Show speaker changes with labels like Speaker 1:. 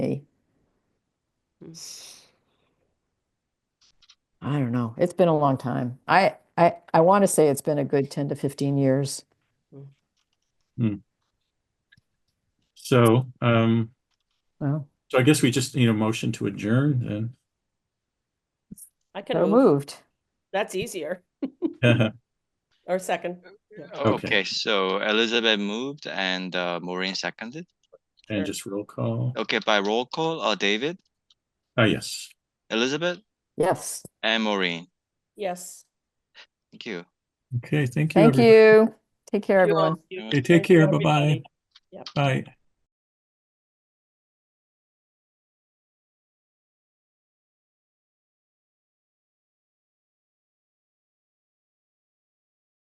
Speaker 1: me. I don't know. It's been a long time. I, I, I want to say it's been a good ten to fifteen years.
Speaker 2: So, um,
Speaker 1: Well,
Speaker 2: so I guess we just need a motion to adjourn
Speaker 3: I can
Speaker 1: so
Speaker 3: move.
Speaker 1: moved.
Speaker 3: That's easier.
Speaker 2: then.
Speaker 3: Or second.
Speaker 2: Okay.
Speaker 4: Okay, so Elizabeth moved and uh, Maureen seconded.
Speaker 2: And just roll call.
Speaker 4: Okay, by roll call, uh, David,
Speaker 2: Ah, yes.
Speaker 4: Elizabeth,
Speaker 1: Yes.
Speaker 4: and Maureen.
Speaker 3: Yes.
Speaker 4: Thank you.
Speaker 2: Okay, thank you.
Speaker 1: Thank
Speaker 2: everybody.
Speaker 1: you. Take care,
Speaker 3: You all.
Speaker 1: everyone.
Speaker 3: You-
Speaker 2: Okay, take
Speaker 3: thank you,
Speaker 2: care. Bye-bye.
Speaker 3: everybody.
Speaker 2: Bye.